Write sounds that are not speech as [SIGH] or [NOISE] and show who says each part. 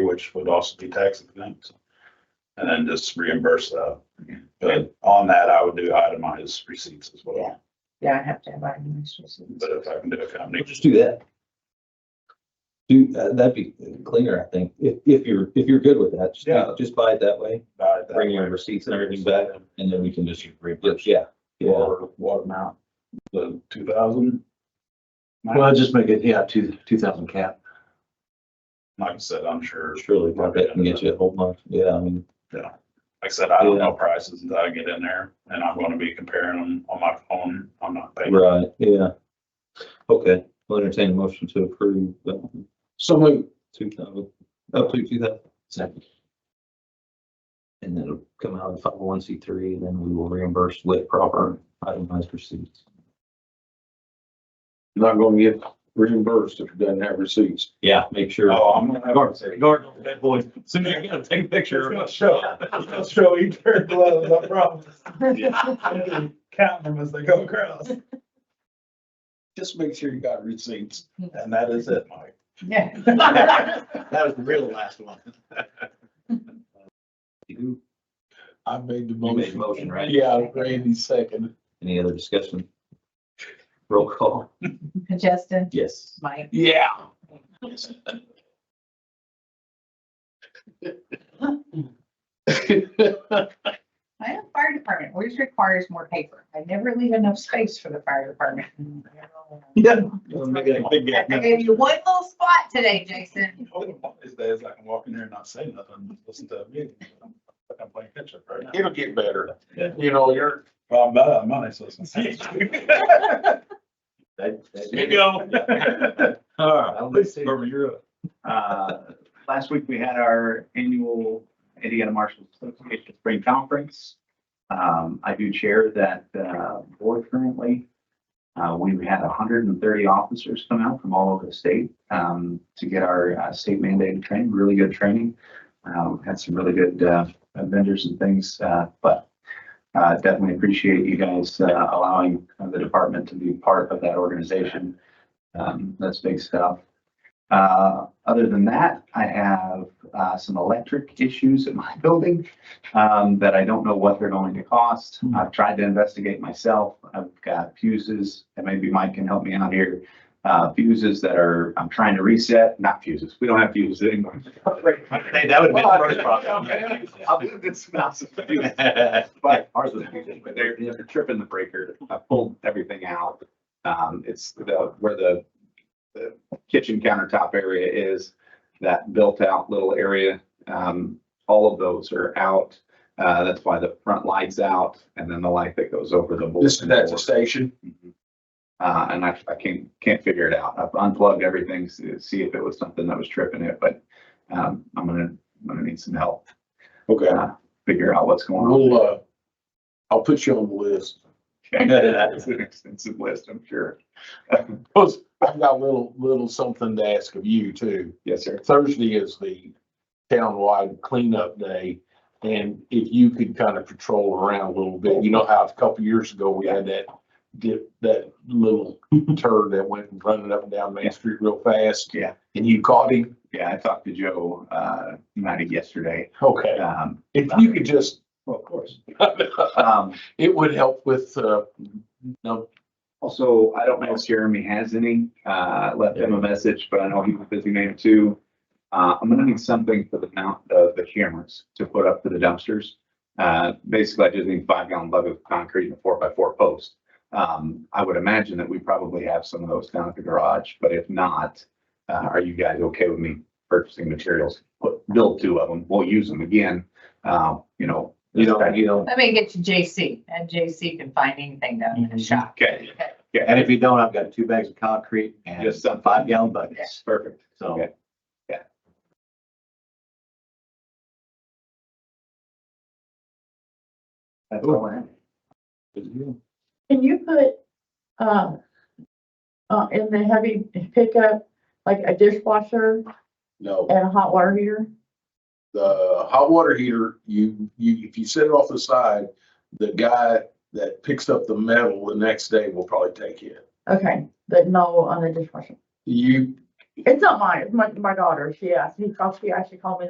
Speaker 1: which would also be tax exempt. And then just reimburse that. But on that, I would do itemized receipts as well,
Speaker 2: Yeah, I have to have administration.
Speaker 1: but if I can do a company.
Speaker 3: We'll just do that. Do, uh, that'd be cleaner, I think, if, if you're, if you're good with that, just,
Speaker 1: Yeah.
Speaker 3: just buy it that way,
Speaker 1: buy it that
Speaker 3: bring
Speaker 1: way.
Speaker 3: your receipts and everything back, and then we can just reimburse, yeah. Yeah,
Speaker 1: Water, water amount, the two thousand.
Speaker 4: Well, just make it, yeah, two, two thousand cap.
Speaker 1: Like I said, I'm sure, like
Speaker 3: surely, I bet can get you a whole month, yeah, I mean,
Speaker 1: I said, I don't know prices until I get in there and I'm gonna be comparing them on my phone. I'm not paying.
Speaker 3: right, yeah. Okay, we'll entertain a motion to approve, um,
Speaker 4: So move.
Speaker 3: two thousand, up to two thousand,
Speaker 4: Second.
Speaker 3: and then it'll come out of five oh one C three, and then we will reimburse with proper itemized receipts.
Speaker 4: Not gonna get reimbursed if it doesn't have receipts.
Speaker 3: Yeah, make sure.
Speaker 1: Oh, I'm gonna have
Speaker 3: Guard, guard, bad boy.
Speaker 1: Soon as
Speaker 3: I gotta take a
Speaker 1: It's
Speaker 3: picture.
Speaker 1: gonna show, it's gonna show each pair of gloves, I promise. Count them as they go across.
Speaker 4: Just make sure you got receipts.
Speaker 1: And that is it, [LAUGHS] Mike.
Speaker 2: Yeah.
Speaker 4: That was the real last one.
Speaker 3: You
Speaker 4: I made the
Speaker 3: made the motion, right?
Speaker 4: Yeah, Randy second.
Speaker 3: Any other discussion? Roll call.
Speaker 2: [LAUGHS] Justin,
Speaker 3: Yes.
Speaker 2: Mike,
Speaker 4: Yeah.
Speaker 2: I have fire department, always requires more paper. I never leave enough space for the fire department.
Speaker 3: Yeah.
Speaker 2: I I gave you one little spot today, Jason.
Speaker 1: One of These days I can walk in here and not say nothing, just listen to a meeting. I'm playing catch up right now.
Speaker 4: It'll get better. You know, you're.
Speaker 1: Well, I'm out of money, so it's. [LAUGHS] There [LAUGHS] go.
Speaker 3: All right.
Speaker 1: Barbara, you're up.
Speaker 5: Uh, Last week, we had our annual Indiana Marshall Association Spring Conference. Um, I do chair that uh, board currently. Uh, We had hundred and thirty officers come out from all over the state um, to get our uh, state mandated training, really good training. Uh, we Had some really good uh, vendors and things, uh, but uh, definitely appreciate you guys uh, allowing the department to be part of that organization. Um, That's big stuff. Uh, other than that, I have, uh, some electric issues at my [LAUGHS] building, um, that I don't know what they're going to cost. I've tried to investigate myself. I've got fuses, and maybe Mike can help me out here. Uh, fuses that are, I'm trying to reset, not fuses. We don't have fuses anymore. [LAUGHS] Hey, that would be the first problem. I'll do this mouse. [LAUGHS] But ours was, fuses, but they're, they're tripping the breaker. I pulled everything out. Um, it's the, where the kitchen countertop area is, that built out little area. Um, all of those are out. Uh, that's why the front light's out and then the light that goes over the.
Speaker 4: This,
Speaker 5: bulletin
Speaker 4: that's a
Speaker 5: board.
Speaker 4: station.
Speaker 5: Mhm. Uh, and I, I can't, can't figure it out. I've unplugged everything to see if it was something that was tripping it, but, um, I'm gonna, I'm gonna need some help,
Speaker 4: Okay.
Speaker 5: figure out what's going on.
Speaker 4: We'll, uh, I'll put you on the list.
Speaker 5: It's an extensive list, I'm sure.
Speaker 4: Plus, I've got a little, little something to ask of you too.
Speaker 5: Yes, sir.
Speaker 4: Thursday is the townwide cleanup day. And if you could kind of patrol around a little bit, you know how a couple years ago we had that dip, that little turd that went running up and down Main
Speaker 5: Yeah.
Speaker 4: Street real fast?
Speaker 5: Yeah.
Speaker 4: And you caught him?
Speaker 5: Yeah, I talked to Joe, uh, Matty yesterday.
Speaker 4: Okay.
Speaker 5: Um,
Speaker 4: If you could just,
Speaker 5: well, of course. [LAUGHS] Um,
Speaker 4: it would help with, uh, no,
Speaker 5: Also, I don't know if Jeremy has any, uh, left him a message, but I know he was busy name too. Uh, I'm gonna need something for the mount of the cameras to put up for the dumpsters. Uh, basically, I just need five gallon lug of concrete and a four by four post. Um, I would imagine that we probably have some of those down at the garage, but if not, uh, are you guys okay with me purchasing materials? Put, build two of them, we'll use them again, uh, you know.
Speaker 3: You don't, you don't,
Speaker 2: Let me get you JC and JC can find anything down in the shop.
Speaker 5: Okay,
Speaker 6: And if you don't, I've got two bags of concrete and
Speaker 5: Just some-
Speaker 6: some five gallon buckets,
Speaker 5: perfect.
Speaker 6: so.
Speaker 5: Okay. Yeah. That's all I have.
Speaker 7: Can you put, uh, uh, in the heavy pickup, like a dishwasher
Speaker 4: no.
Speaker 7: and a hot water heater?
Speaker 4: the hot water heater, you, you, if you set it off the side, the guy that picks up the metal the next day will probably take it.
Speaker 7: Okay, but no on the dishwasher.
Speaker 4: You,
Speaker 7: It's not mine, it's my, my daughter's. She asked, he called, she actually called me